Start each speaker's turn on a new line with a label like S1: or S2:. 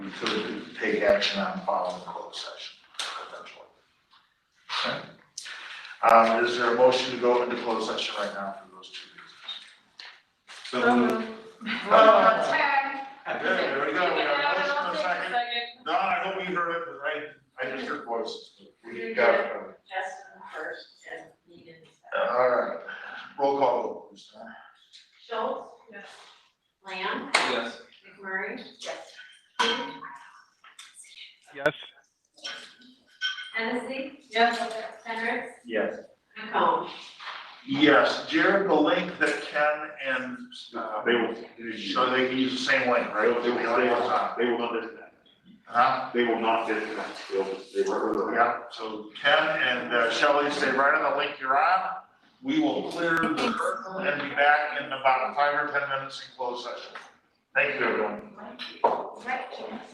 S1: so we could take action on following closed session potentially. Okay. Um, is there a motion to go into closed session right now for those two reasons?
S2: So moved.
S1: Yeah, there we go, we have a motion and a second.
S3: Second,
S1: No, I hope we heard it, right, I just heard voices. We
S4: You
S1: got
S4: did.
S1: it.
S4: Justin first, as needed.
S1: All right, roll call, vote, please.
S4: Schultz?
S3: Yes.
S4: Lamb?
S2: Yes.
S4: McMurray? Yes.
S5: Yes.
S4: Hennessy?
S3: yes.
S4: Hendricks?
S1: Yes.
S4: McComb?
S1: Yes, Jared, the link that Ken and, uh,
S6: They will,
S1: so they can use the same link,
S6: they
S1: right? Uh-huh.
S6: will, they will, they will, they will not disconnect.
S1: Huh?
S6: They will not disconnect. They'll, they will.
S1: Yeah, so Ken and uh, Shelley stay right on the link you're on. We will clear the curtain and be back in about five or ten minutes in closed session. Thank you, everyone.
S4: Right.